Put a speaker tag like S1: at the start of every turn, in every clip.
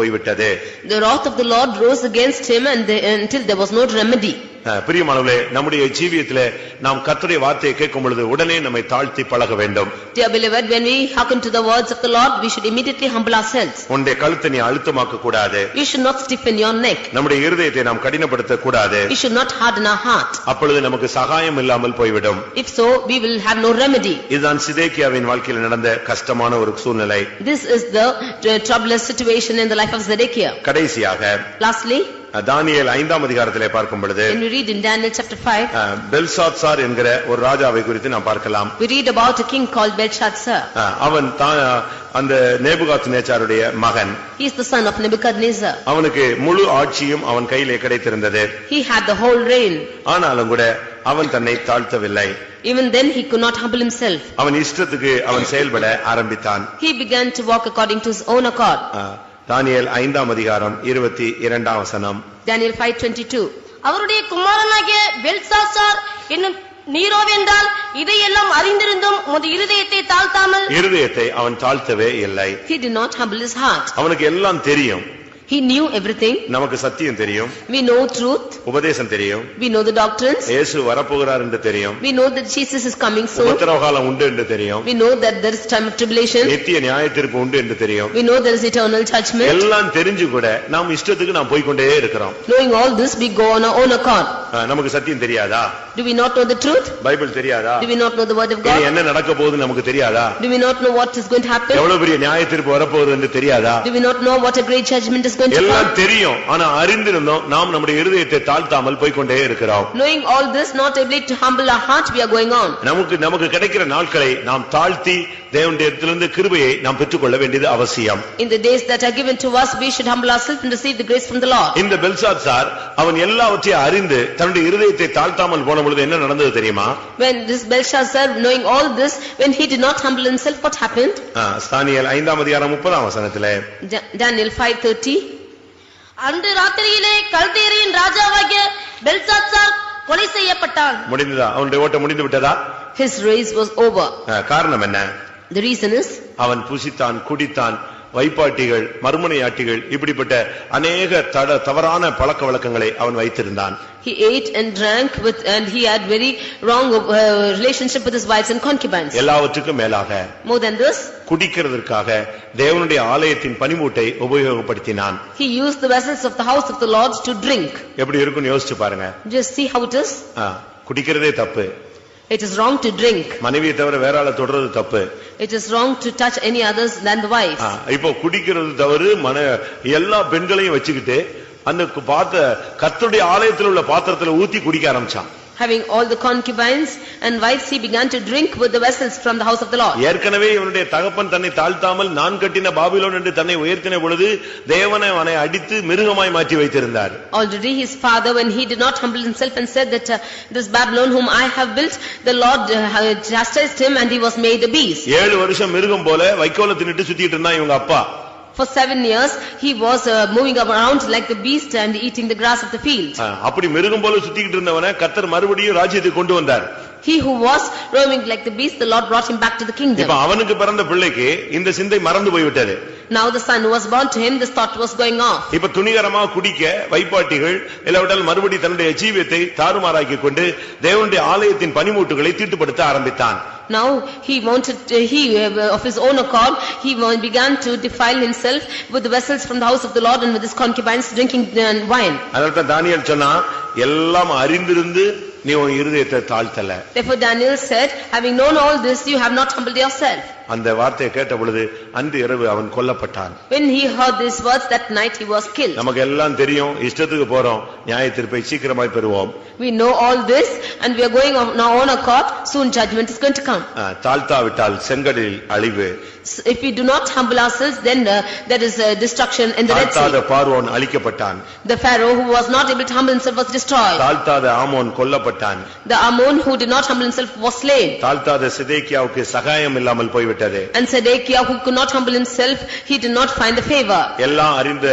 S1: போய்விட்டது
S2: The wrath of the Lord rose against him and the- until there was no remedy.
S1: அஹ், பிரியமானவர்களே நம்முடைய ஜீவியத்திலே நாம் கர்த்தருடைய வார்த்தையை கேட்கும் பொழுது உடனே நம்மை தாழ்த்தி பழக வேண்டும்
S2: Dear beloved, when we hearken to the words of the Lord, we should immediately humble ourselves.
S1: உன்னுடைய கழுத்தை நீ அழுத்தமாக்க கூடாது
S2: You should not stiffen your neck.
S1: நம்முடைய இருதயத்தை நாம் கடினப்படுத்த கூடாது
S2: We should not harden our heart.
S1: அப்பொழுது நமக்கு சகாயம் இல்லாமல் போய்விடும்
S2: If so, we will have no remedy.
S1: இதுதான் சிதேக்கியாவின் வாழ்க்கையில் நடந்த கஷ்டமான ஒரு சூழ்நிலை
S2: This is the uh, troublous situation in the life of Zedekiah.
S1: கடைசியாக
S2: Lastly,
S1: அஹ், தானியேல் ஐந்தாம் அதிகாரத்திலே பார்க்கும் பொழுது
S2: when we read in Daniel chapter 5,
S1: அஹ், பெல்சாத்சார் என்கிற ஒரு ராஜாவை குறித்து நாம் பார்க்கலாம்
S2: we read about a king called Belshazzar.
S1: அஹ், அவன் தான் அந்த நேபுகாத் நேச்சாருடைய மகன்
S2: He is the son of Nebuchadnezzar.
S1: அவனுக்கு முழு ஆட்சியும் அவன் கையிலே கிடைத்திருந்தது
S2: He had the whole reign.
S1: ஆனாலும் கூட அவன் தன்னை தாழ்த்தவில்லை
S2: Even then, he could not humble himself.
S1: அவன் இஷ்டத்துக்கு அவன் செயல்பட ஆரம்பித்தான்
S2: He began to walk according to his own accord.
S1: ஆ, தானியேல் ஐந்தாம் அதிகாரம் இருபத்தி இரண்டாம் வசனம்
S2: Daniel 5:22.
S3: அவருடைய குமாரனாகிய பெல்சாசார் என்னும் நீரோவென்றால் இதையெல்லாம் அறிந்திருந்தும் உமது இருதயத்தை தாழ்த்தாமல்
S1: இருதயத்தை அவன் தாழ்த்தவே இல்லை
S2: He did not humble his heart.
S1: அவனுக்கு எல்லாம் தெரியும்
S2: He knew everything.
S1: நமக்கு சத்தியம் தெரியும்
S2: We know truth.
S1: உபதேசம் தெரியும்
S2: We know the doctrines.
S1: இயேசு வரப்போகிறார் என்று தெரியும்
S2: We know that Jesus is coming soon.
S1: உபத்திரவகாலம் உண்டு என்று தெரியும்
S2: We know that there is time of tribulation.
S1: நித்திய நியாயத்திற்கு உண்டு என்று தெரியும்
S2: We know there is eternal judgment.
S1: எல்லாம் தெரிஞ்சு கூட நாம் இஷ்டத்துக்கு நாம் போய்க்கொண்டே இருக்கிறோம்
S2: Knowing all this, we go on our own accord.
S1: ஆ, நமக்கு சத்தியம் தெரியாதா
S2: Do we not know the truth?
S1: Bible தெரியாதா
S2: Do we not know the word of
S1: இனி
S2: God?
S1: என்ன நடக்க போகுதுன்னு நமக்கு தெரியாதா
S2: Do we not know what is going to happen?
S1: எவ்வளவு பெரிய நியாயத்திற்கு வரப்போகுது என்று தெரியாதா
S2: Do we not know what a great judgment is going to
S1: எல்லாம்
S2: come?
S1: தெரியும் ஆனா அறிந்திருந்தோம் நாம் நம்முடைய இருதயத்தை தாழ்த்தாமல் போய்க்கொண்டே இருக்கிறோம்
S2: Knowing all this, not able to humble our heart, we are going on.
S1: நமக்கு நமக்கு கிடைக்கிற நாட்களை நாம் தாழ்த்தி தேவனுடைய இடத்திலிருந்து கிருபையை நாம் பெற்றுக்கொள்ள வேண்டியது அவசியம்
S2: In the days that are given to us, we should humble ourselves and receive the grace from the Lord.
S1: இந்த பெல்சாத் சார் அவன் எல்லாவற்றையும் அறிந்து தன்னுடைய இருதயத்தை தாழ்த்தாமல் போன பொழுது என்ன நடந்தது தெரியுமா
S2: When this Belshazzar, knowing all this, when he did not humble himself, what happened?
S1: ஆ, ஸ்தானியல் ஐந்தாம் அதிகாரம் முப்பதாம் வசனத்திலே
S2: Da- Daniel 5:30.
S3: அன்று ராத்திரியிலே கல்தேரியின் ராஜாவாகிய பெல்சாசார் கொலை செய்யப்பட்டான்
S1: முடிந்ததா அவனுடைய ஓட்டம் முடிந்து விட்டதா
S2: His race was over.
S1: ஆ, காரணம் என்ன
S2: The reason is,
S1: அவன் புசித்தான் குடித்தான் வைப்பாட்டிகள் மறுமனையாட்டிகள் இப்படிப்பட்ட அநேக தட தவறான பழக்க வழக்கங்களை அவன் வைத்திருந்தான்
S2: he ate and drank with, and he had very wrong uh, relationship with his wives and concubines.
S1: எல்லாவற்றுக்கும் மேலாக
S2: More than this,
S1: குடிக்கிறதற்காக தேவனுடைய ஆலயத்தின் பனிமூட்டை உபயோகப்படுத்தினான்
S2: he used the vessels of the house of the Lord to drink.
S1: எப்படி இருக்கும்னு யோசிச்சு பாருங்க
S2: Just see how it is.
S1: ஆ, குடிக்கிறதே தப்பு
S2: It is wrong to drink.
S1: மனைவியை தவிர வேற ஆளை தொடர்றது தப்பு
S2: It is wrong to touch any others than the wives.
S1: ஆ, இப்போ குடிக்கிறது தவறு மன எல்லா பெண்களையும் வச்சுக்கிட்டு அந்த கு- பாத்த கர்த்தருடைய ஆலயத்தில் உள்ள பாத்திரத்துல ஊத்தி குடிக்க ஆரம்பிச்சான்
S2: Having all the concubines and wives, he began to drink with the vessels from the house of the Lord.
S1: ஏற்கனவே இவனுடைய தகப்பன் தன்னை தாழ்த்தாமல் நான் கட்டின பாபிலோன் என்று தன்னை உயர்த்தின பொழுது தேவனை அவனை அடித்து மிருகமாய் மாற்றி வைத்திருந்தார்
S2: Already his father, when he did not humble himself and said that uh, this Babylon whom I have built, the Lord uh, chastised him and he was made a beast.
S1: ஏழு வருஷம் மிருகம் போல வைக்கோல தின்னுட்டு சுத்திட்டு இருந்தான் இவங்க அப்பா
S2: For seven years, he was uh, moving around like the beast and eating the grass of the field.
S1: ஆ, அப்படி மிருகம் போல சுத்திக்கிட்டு இருந்தவனை கர்த்தர் மறுபடியும் ராஜ்யத்துக்கு கொண்டு வந்தார்
S2: He who was roaming like the beast, the Lord brought him back to the
S1: இப்ப
S2: kingdom.
S1: அவனுக்கு பிறந்த பிள்ளைக்கு இந்த சிந்தை மறந்து போய்விட்டது
S2: Now the son who was born to him, this thought was going off.
S1: இப்ப துணிகரமா குடிக்க வைப்பாட்டிகள் இல்லாவிட்டால் மறுபடி தன்னுடைய ஜீவியத்தை தாறுமாறாக்கி கொண்டு தேவனுடைய ஆலயத்தின் பனிமூட்டுகளை தீட்டுப்படுத்த ஆரம்பித்தான்
S2: Now he wanted, uh, he uh, of his own accord, he wa- began to defile himself with the vessels from the house of the Lord and with his concubines drinking uh, wine.
S1: அதனால Daniel சொன்னா எல்லாம் அறிந்திருந்து நீ உன் இருதயத்தை தாழ்த்தல
S2: Therefore Daniel said, having known all this, you have not humbled yourself.
S1: அந்த வார்த்தையை கேட்ட பொழுது அன்று இரவு அவன் கொல்லப்பட்டான்
S2: When he heard these words, that night he was killed.
S1: நமக்கு எல்லாம் தெரியும் இஷ்டத்துக்கு போறோம் நியாய தீர்ப்பை சீக்கிரமாய் பெறுவோம்
S2: We know all this and we are going on our own accord, soon judgment is going to come.
S1: ஆ, தாழ்த்தாவிட்டால் செங்கடலில் அழிவு
S2: So If we do not humble ourselves, then uh, there is uh, destruction in the Red
S1: தாழ்த்தாத
S2: Sea.
S1: பார்வோன் அழிக்கப்பட்டான்
S2: The Pharaoh who was not able to humble himself was destroyed.
S1: தாழ்த்தாத ஆமோன் கொல்லப்பட்டான்
S2: The Ammon who did not humble himself was slain.
S1: தாழ்த்தாத சிதேக்கியாவுக்கு சகாயம் இல்லாமல் போய்விட்டது
S2: And Sedekiah who could not humble himself, he did not find the favor.
S1: எல்லாம் அறிந்த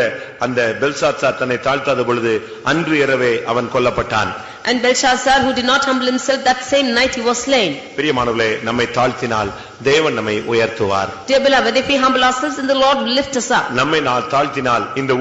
S1: அந்த பெல்சாத்சார் தன்னை தாழ்த்தாத பொழுது அன்று இரவே அவன் கொல்லப்பட்டான்
S2: And Belshazzar, who did not humble himself, that same night he was slain.
S1: பிரியமானவர்களே நம்மை தாழ்த்தினால் தேவன் நம்மை உயர்த்துவார்
S2: Dear beloved, if we humble ourselves, then the Lord will lift us up.
S1: நம்மை நான் தாழ்த்தினால் இந்த